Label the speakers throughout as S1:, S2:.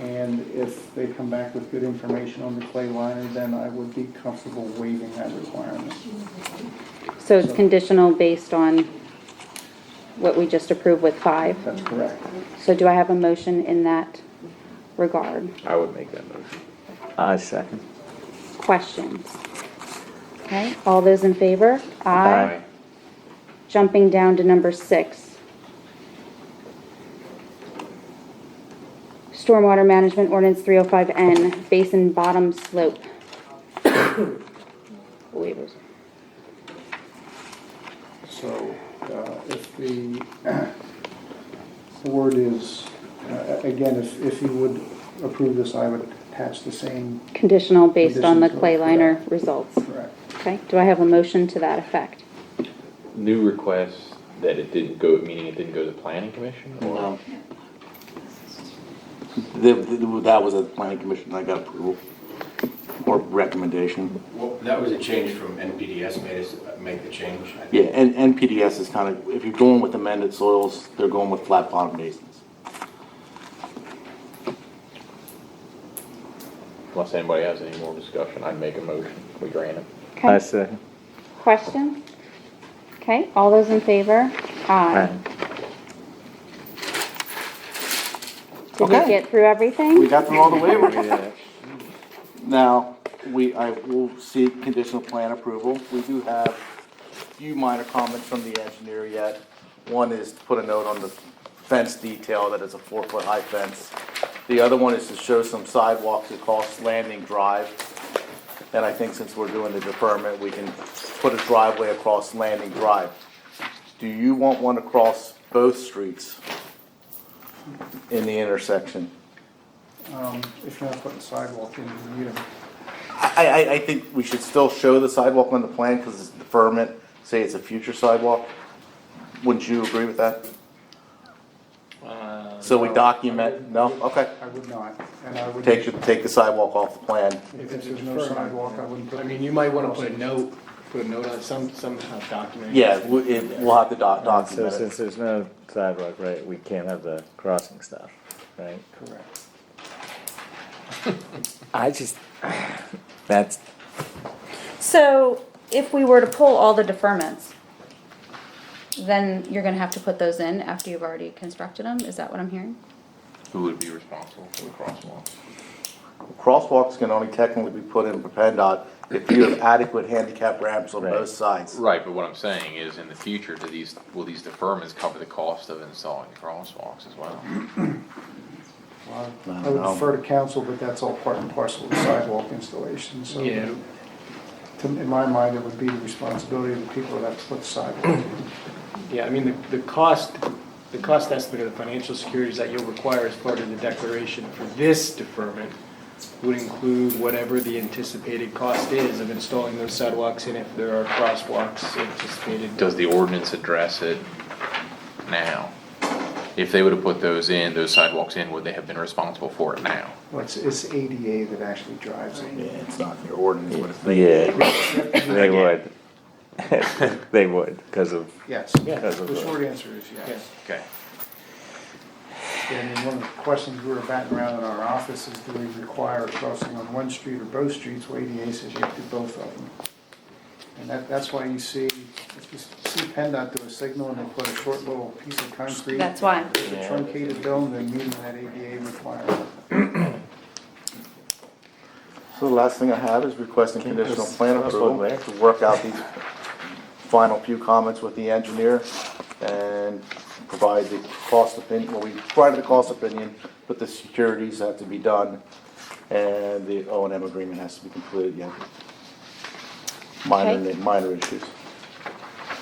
S1: And if they come back with good information on the clay liner, then I would be comfortable waiving that requirement.
S2: So it's conditional based on what we just approved with five?
S1: That's correct.
S2: So do I have a motion in that regard?
S3: I would make that motion.
S4: I second.
S2: Questions? Okay, all those in favor?
S4: Aye.
S2: Jumping down to number six. Stormwater Management Ordinance 305N, Basin Bottom Slope. Waivers.
S1: So uh, if the board is, uh, again, if, if you would approve this, I would attach the same,
S2: Conditional based on the
S1: Conditional,
S2: clay liner
S1: correct.
S2: results.
S1: correct?
S2: Okay, do I have a motion to that effect?
S3: New request that it didn't go, meaning it didn't go to planning commission or?
S5: That, that was a planning commission that got approval or recommendation.
S6: Well, that was a change from NPDS made us make the change. I think.
S5: Yeah, and NPDS is kind of, if you're going with amended soils, they're going with flat bottom basins.
S3: Unless anybody has any more discussion, I'd make a motion. We grant it.
S4: I
S2: Okay,
S4: second.
S2: question? Okay, all those in favor? Aye. Did we
S5: Okay.
S2: get through
S5: We
S2: everything?
S5: got through all the waivers.
S4: Yeah.
S5: Now, we, I will seek conditional plan approval. We do have a few minor comments from the engineer yet. One is to put a note on the fence detail that it's a four-foot high fence. The other one is to show some sidewalks across Landing Drive. And I think since we're doing the deferment, we can put a driveway across Landing Drive. Do you want one across both streets in the intersection?
S1: Um, If you're not putting sidewalk in, you need them.
S5: I, I, I think we should still show the sidewalk on the plan because it's deferment, say it's a future sidewalk. Wouldn't you agree with that? So we
S1: no.
S5: document, no, okay.
S1: I would not, and I would.
S5: Take, your- take the sidewalk off the plan.
S1: If there's no sidewalk, I wouldn't put.
S7: I mean, you might wanna put a note, put a note on some, uh, somehow documenting.
S5: Yeah, we, it, we'll have to doc,
S4: So
S5: document
S4: since
S5: it.
S4: there's no sidewalk, right, we can't have the crossing stuff, right?
S1: Correct.
S4: I just, that's,
S2: So if we were to pull all the deferments, then you're gonna have to put those in after you've already constructed them? Is that what I'm hearing?
S3: Who would be responsible for the crosswalk?
S5: Crosswalks can only technically be put in for PennDOT if you have adequate handicap ramps on
S4: Right.
S5: both sides.
S3: Right, but what I'm saying is in the future, do these, will these deferments cover the cost of installing the crosswalks as well?
S1: Well,
S5: No,
S1: I would
S5: no.
S1: defer to council, but that's all part and parcel of sidewalk installation, so.
S7: Yeah.
S1: to- In my mind, it would be the responsibility of the people that have to put the sidewalk in.
S7: Yeah, I mean, the, the cost, the cost estimate of the financial securities that you'll require as part of the declaration for this deferment would include whatever the anticipated cost is of installing those sidewalks and if there are crosswalks anticipated.
S3: Does the ordinance address it now? If they would have put those in, those sidewalks in, would they have been responsible for it now?
S1: Well, it's, it's ADA that actually drives it.
S5: Yeah, it's not in your ordinance, but it's.
S4: yeah, they would. They would, because of,
S1: Yes,
S4: because of
S1: the short
S4: the,
S1: answer is yes.
S3: Okay.
S1: I mean, one of the questions we were batting around in our office is do we require crossing on one street or both streets? Well, ADA says you have to do both of them. And that, that's why you see, if you see PennDOT do a signal and they put a short little piece of concrete.
S2: That's why.
S1: with a truncated dome, they're meeting that ADA requirement.
S5: So the last thing I have is requesting conditional plan
S4: that's
S5: approval
S4: what we-
S5: to work out these final few comments with the engineer and provide the cost opinion, well, we provided the cost opinion, but the securities have to be done and the O and M agreement has to be completed yet. Minor,
S2: Okay.
S5: minor issues.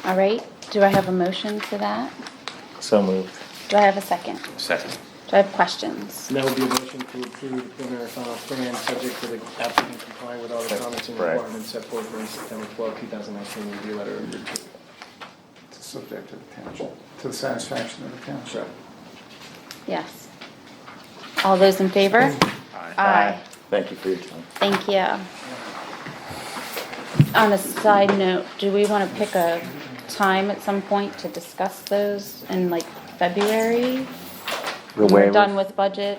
S2: All right, do I have a motion to that?
S4: so moved.
S2: Do I have a second?
S3: Second.
S2: Do I have questions?
S7: And that would be a motion to approve the preliminary final plan, subject to the applicant complying with all the comments and
S4: Right.
S7: requirements set forth in the September 12, 2019 review letter of your approval.
S1: It's subject to the township, to the satisfaction of the township.
S2: Yes. All those in favor? Aye.
S5: Thank you for your time.
S2: Thank you. On a side note, do we want to pick a time at some point to discuss those in like February?
S4: The
S2: When we're
S4: waivers.
S2: done with budget